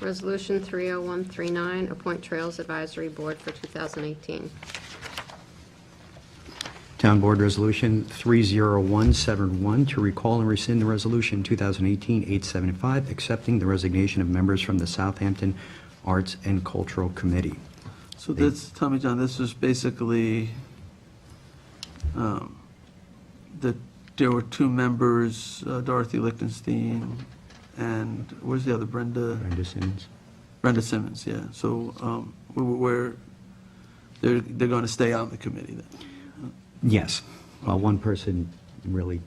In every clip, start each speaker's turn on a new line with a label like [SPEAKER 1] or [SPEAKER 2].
[SPEAKER 1] Resolution 30139, appoint Trails Advisory Board for 2018.
[SPEAKER 2] Town Board Resolution 30171 to recall and rescind the Resolution 2018-875, accepting the resignation of members from the Southampton Arts and Cultural Committee.
[SPEAKER 3] So that's, Tommy John, this was basically, um, that there were two members, uh, Dorothy Lichtenstein and, where's the other, Brenda?
[SPEAKER 2] Brenda Simmons.
[SPEAKER 3] Brenda Simmons, yeah. So um, we- we're, they're, they're going to stay on the committee then.
[SPEAKER 2] Yes. Well, one person really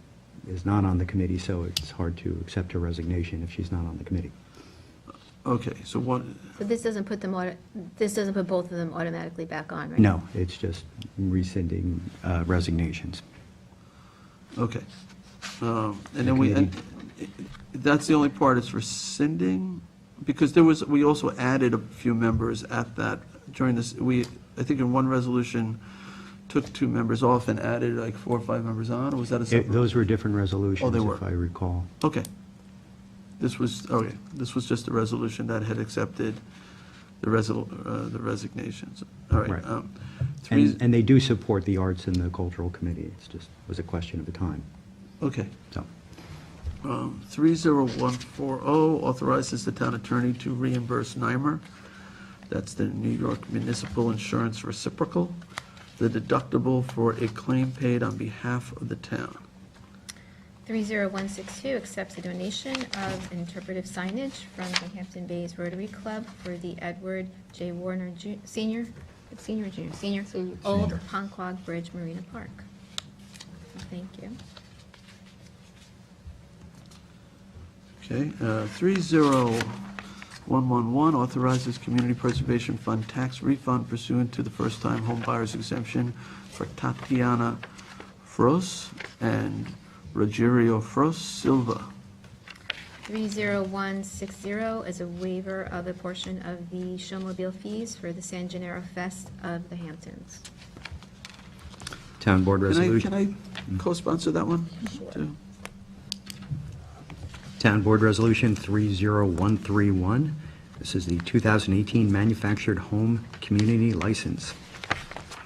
[SPEAKER 2] is not on the committee, so it's hard to accept her resignation if she's not on the committee.
[SPEAKER 3] Okay, so what,
[SPEAKER 4] So this doesn't put them, auto- this doesn't put both of them automatically back on, right?
[SPEAKER 2] No, it's just rescinding uh, resignations.
[SPEAKER 3] okay. Um, And then we,
[SPEAKER 2] The
[SPEAKER 3] and that's the only part is rescinding? Because there was, we also added a few members at that, during this, we, I think in one resolution, took two members off and added like four or five members on, or was that a
[SPEAKER 2] It-
[SPEAKER 3] separate?
[SPEAKER 2] Those were different resolutions,
[SPEAKER 3] were.
[SPEAKER 2] if I recall.
[SPEAKER 3] Okay. This was, okay, this was just a resolution that had accepted the resol, uh, the resignations. All right.
[SPEAKER 2] Right.
[SPEAKER 3] um, three-
[SPEAKER 2] And and they do support the arts and the cultural committee. It's just, was a question of the time,
[SPEAKER 3] Okay.
[SPEAKER 2] so.
[SPEAKER 3] Um, 30140 authorizes the town attorney to reimburse NYMER. That's the New York Municipal Insurance Reciprocal, the deductible for a claim paid on behalf of the town.
[SPEAKER 4] 30162 accepts a donation of interpretive signage from the Hampton Bays Rotary Club for the Edward J. Warner Ju- Senior, Senior, or Junior, Senior,
[SPEAKER 1] Senior.
[SPEAKER 4] Old
[SPEAKER 2] Senior.
[SPEAKER 4] Ponquag Bridge Marina Park. Thank you.
[SPEAKER 3] Okay, uh, 30111 authorizes Community Preservation Fund tax refund pursuant to the first-time home buyer's exemption for Tatiana Fros and Rogerio Fros Silva.
[SPEAKER 4] 30160 is a waiver of a portion of the showmobile fees for the San Gennaro Fest of the Hamptons.
[SPEAKER 2] Town Board
[SPEAKER 3] Can I,
[SPEAKER 2] Resolution.
[SPEAKER 3] can I co-sponsor that one? too?
[SPEAKER 2] Town Board Resolution 30131. This is the 2018 Manufactured Home Community License.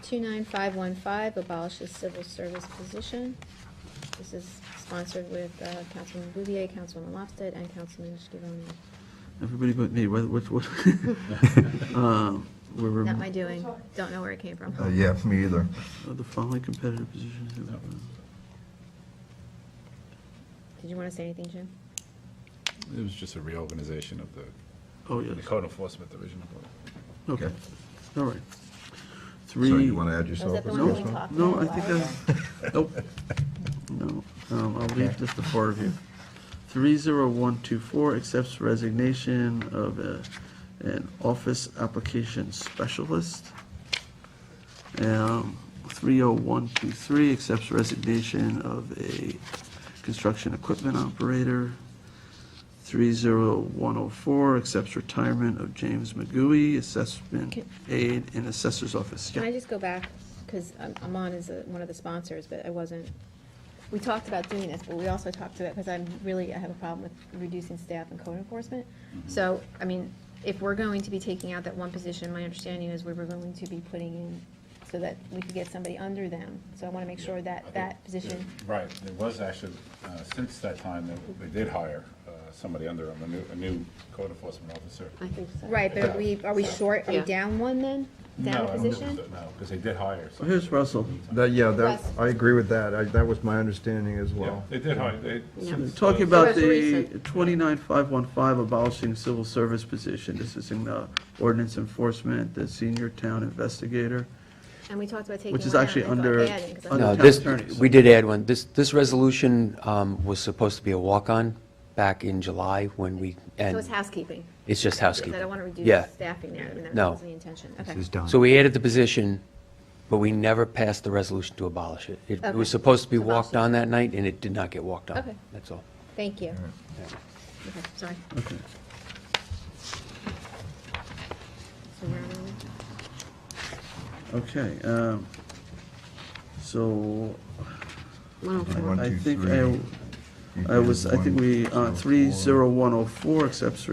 [SPEAKER 4] 29515 abolishes civil service position. This is sponsored with uh, Councilman Bouvier, Councilman Lofted, and Councilman Schivoni.
[SPEAKER 3] Everybody but me, what, what, what? Um, We're,
[SPEAKER 4] Not
[SPEAKER 3] remo-
[SPEAKER 4] my doing, don't know where it came from.
[SPEAKER 5] Uh, Yeah, me either.
[SPEAKER 3] oh, the following competitive positions.
[SPEAKER 4] Did you want to say anything, Jim?
[SPEAKER 6] It was just a reorganization of the
[SPEAKER 3] Oh,
[SPEAKER 6] the
[SPEAKER 3] yes,
[SPEAKER 6] code enforcement division. of the-
[SPEAKER 3] okay, all right.
[SPEAKER 5] So
[SPEAKER 3] Three.
[SPEAKER 5] you want to add yourself?
[SPEAKER 4] Was that the
[SPEAKER 5] as
[SPEAKER 4] one we
[SPEAKER 5] first
[SPEAKER 4] talked about?
[SPEAKER 3] No, I think I, nope, no, um, I'll leave just the four of you. Three zero one two four accepts resignation of a, an office application specialist. Um, three oh one two three accepts resignation of a construction equipment operator. Three zero one oh four accepts retirement of James McGooey, assessment
[SPEAKER 4] Can-
[SPEAKER 3] aide in assessor's office.
[SPEAKER 4] Can
[SPEAKER 3] Yeah.
[SPEAKER 4] I just go back, because I'm on as a- one of the sponsors, but I wasn't, we talked about doing this, but we also talked about, because I'm really, I have a problem with reducing staff and code enforcement. So, I mean, if we're going to be taking out that one position, my understanding is we were going to be putting in so that we could get somebody under them. So I want to make sure that that position,
[SPEAKER 6] Right, there was actually, uh, since that time, they- they did hire uh, somebody under them, a new, a new code enforcement officer.
[SPEAKER 1] I think so.
[SPEAKER 4] right, but are we, are we short, are we
[SPEAKER 1] Yeah.
[SPEAKER 4] down one then?
[SPEAKER 6] No,
[SPEAKER 4] Down
[SPEAKER 6] I
[SPEAKER 4] a
[SPEAKER 6] don't think
[SPEAKER 4] position?
[SPEAKER 6] so, No, because they did hire.
[SPEAKER 3] Well, Here's Russell.
[SPEAKER 5] That, yeah, that,
[SPEAKER 4] Russ.
[SPEAKER 5] I agree with that. I- That was my understanding as
[SPEAKER 6] Yeah,
[SPEAKER 5] well.
[SPEAKER 6] they did hire, they. since, uh,
[SPEAKER 3] Talking about
[SPEAKER 1] That's
[SPEAKER 3] the
[SPEAKER 1] recent.
[SPEAKER 3] 29515 abolishing civil service position, this is in the ordinance enforcement, the senior town investigator.
[SPEAKER 4] And we talked about taking
[SPEAKER 3] Which is
[SPEAKER 4] one out,
[SPEAKER 3] actually
[SPEAKER 4] and I thought
[SPEAKER 3] under-
[SPEAKER 4] adding, 'cause I
[SPEAKER 3] under
[SPEAKER 4] thought-
[SPEAKER 7] No,
[SPEAKER 3] town
[SPEAKER 7] this,
[SPEAKER 3] attorney, so-
[SPEAKER 7] we did add one. This, this resolution um, was supposed to be a walk-on back in July when we,
[SPEAKER 4] So it's
[SPEAKER 7] and
[SPEAKER 4] housekeeping,
[SPEAKER 7] it's just
[SPEAKER 4] because
[SPEAKER 7] housekeeping.
[SPEAKER 4] I don't want to
[SPEAKER 7] Yeah.
[SPEAKER 4] reduce staffing there, and that
[SPEAKER 7] No.
[SPEAKER 4] wasn't the intention, okay.
[SPEAKER 2] This is done.
[SPEAKER 7] So we added the position, but we never passed the resolution to abolish it. It it was
[SPEAKER 4] Okay.
[SPEAKER 7] supposed to be
[SPEAKER 4] To abolish
[SPEAKER 7] walked
[SPEAKER 4] it.
[SPEAKER 7] on that night, and it did not get walked
[SPEAKER 4] Okay.
[SPEAKER 7] on. That's all.
[SPEAKER 4] Thank you. Okay, sorry.
[SPEAKER 3] Okay.
[SPEAKER 4] So where are we?
[SPEAKER 3] Okay, um, so
[SPEAKER 1] 104.
[SPEAKER 5] One,
[SPEAKER 3] I
[SPEAKER 5] two,
[SPEAKER 3] think
[SPEAKER 5] three.
[SPEAKER 3] uh, I, I was, I think we, uh, 30104 accepts